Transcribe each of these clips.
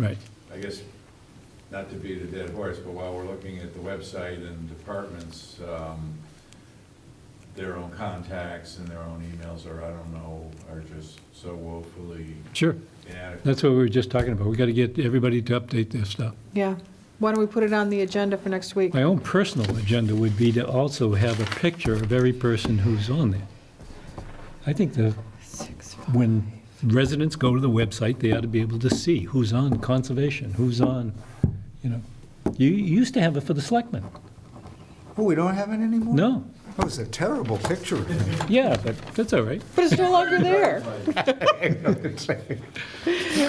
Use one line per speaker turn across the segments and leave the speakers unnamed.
Right.
I guess, not to beat a dead horse, but while we're looking at the website and departments, um, their own contacts and their own emails, or I don't know, are just so woefully
Sure.
inadequate.
That's what we were just talking about. We got to get everybody to update their stuff.
Yeah. Why don't we put it on the agenda for next week?
My own personal agenda would be to also have a picture of every person who's on there. I think the,
Six.
when residents go to the website, they ought to be able to see who's on conservation, who's on, you know. You you used to have it for the selectmen.
Oh, we don't have it anymore?
No.
That was a terrible picture.
Yeah, but that's all right.
But it's no longer there.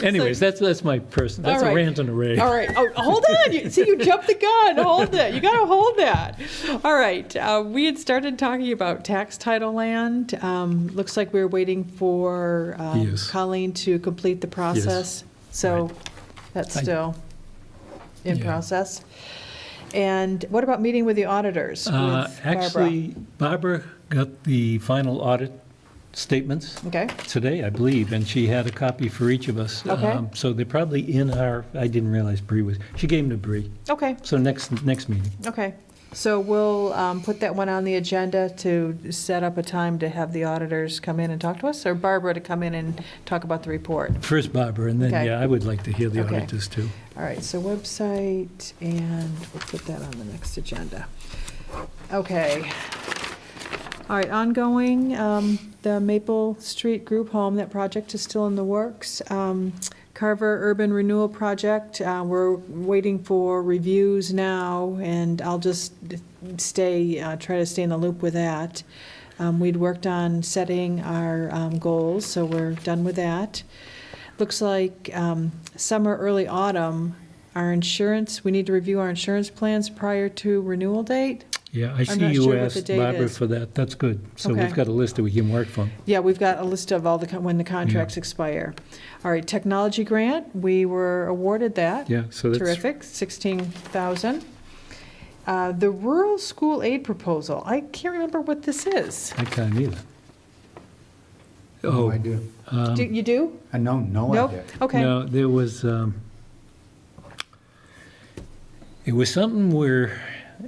Anyways, that's, that's my person, that's
All
a
right.
rant and a rave.
All right. Oh, hold on. You, see, you jumped the gun. Hold it. You got to hold that. All right. Uh, we had started talking about tax title land. Um, looks like we were waiting for um,
Yes.
Colleen to complete the process. So that's
I-
still in
Yeah.
process. And what about meeting with the auditors?
Uh,
with Barbara?
Actually, Barbara got the final audit statements
Okay.
today, I believe, and she had a copy for each of us.
Okay.
Um, So they're probably in our, I didn't realize Bree was, she gave them to Bree.
Okay.
So next, next meeting.
Okay, so we'll um, put that one on the agenda to set up a time to have the auditors come in and talk to us, or Barbara to come in and talk about the report.
First Barbara, and then,
Okay.
yeah, I would like to hear the
Okay.
auditors too.
All right, so website, and we'll put that on the next agenda. Okay. All right, ongoing, um, the Maple Street Group Home, that project is still in the works. Um, Carver Urban Renewal Project, uh, we're waiting for reviews now, and I'll just stay, uh, try to stay in the loop with that. Um, We'd worked on setting our um, goals, so we're done with that. Looks like um, summer, early autumn, our insurance, we need to review our insurance plans prior to renewal date.
Yeah, I see
not
you
sure what the
asked
date
Barbara
is.
for that, that's good. So
Okay.
we've got a list that we can work from.
Yeah, we've got a list of all the, con- when the contracts expire. All right, technology grant, we were awarded that.
Yeah, so that's,
Terrific, 16,000. Uh, The rural school aid proposal, I can't remember what this is.
I can't either.
No
Oh,
idea.
Do- You do?
I know, no
Nope?
idea.
Okay,
No, there was, um, it was something where,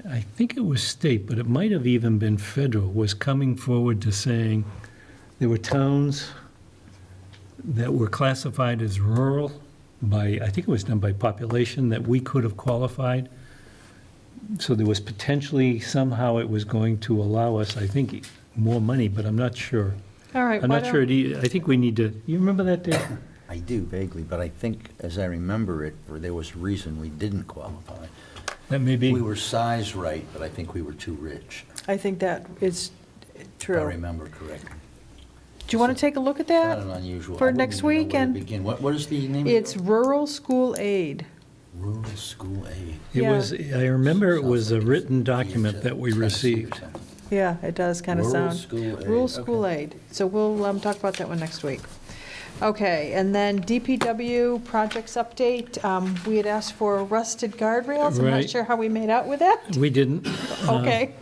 I think it was state, but it might have even been federal, was coming forward to saying there were towns that were classified as rural by, I think it was done by population, that we could have qualified. So there was potentially, somehow it was going to allow us, I think, more money, but I'm not sure.
all right.
I'm
why
not sure,
don't-
it e- I think we need to, you remember that, Dave?
I do vaguely, but I think, as I remember it, or there was a reason we didn't qualify.
That may be.
We were size right, but I think we were too rich,
I think that is
if I
true.
remember correctly.
Do you want to take a look at
Not an
that?
unusual. I
for
wouldn't
next
even know where to
weekend.
Begin. What, what is the name? of it?
It's rural school aid.
Rural School Aid.
It
Yeah.
was, I remember it was a
Sounds like it's
written document
VHS,
that we
Tennessee or
received.
something.
Yeah, it does kind of
Rural
sound.
school aid,
Rural school
okay.
aid. So we'll um, talk about that one next week. Okay, and then DPW projects update. Um, We had asked for rusted guardrails. I'm not
Right.
sure how we made out with that.
We didn't. Uh,
Okay,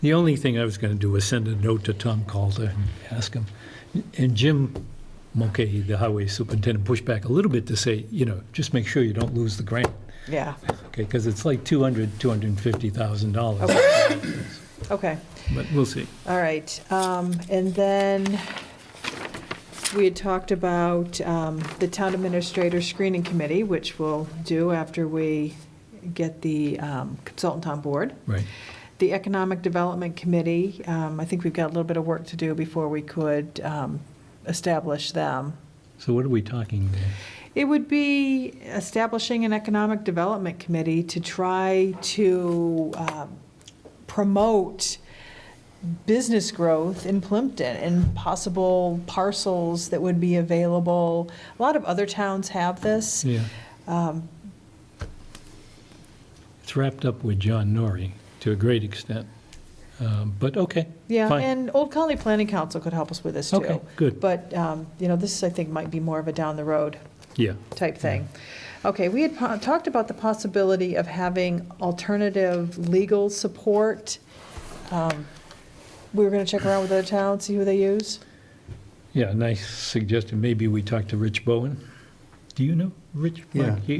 The only thing I was going to do was send a note to Tom Calder and ask him. And Jim Mulcahy, the highway superintendent, pushed back a little bit to say, you know, just make sure you don't lose the grant,
yeah,
okay? Because it's like 200, $250,000.
okay. Okay,
But we'll see.
all right. Um, And then we had talked about um, the town administrator screening committee, which we'll do after we get the um, consultant on board.
Right.
The Economic Development Committee, um, I think we've got a little bit of work to do before we could um, establish them.
So what are we talking there?
It would be establishing an Economic Development Committee to try to um, promote business growth in Plimpton and possible parcels that would be available. A lot of other towns have this.
Yeah.
Um,
It's wrapped up with John Norrie to a great extent. Um, But, okay.
Yeah,
fine.
and Old Colony Planning Council could help us with this, too.
Okay, good.
But, um, you know, this, I think, might be more of a down-the-road
Yeah.
type thing. Okay, we had po- talked about the possibility of having alternative legal support. Um, We were going to check around with other towns, see who they use.
Yeah, and I suggested maybe we talk to Rich Bowen. Do you know? Rich,
Yeah.
Mike, you-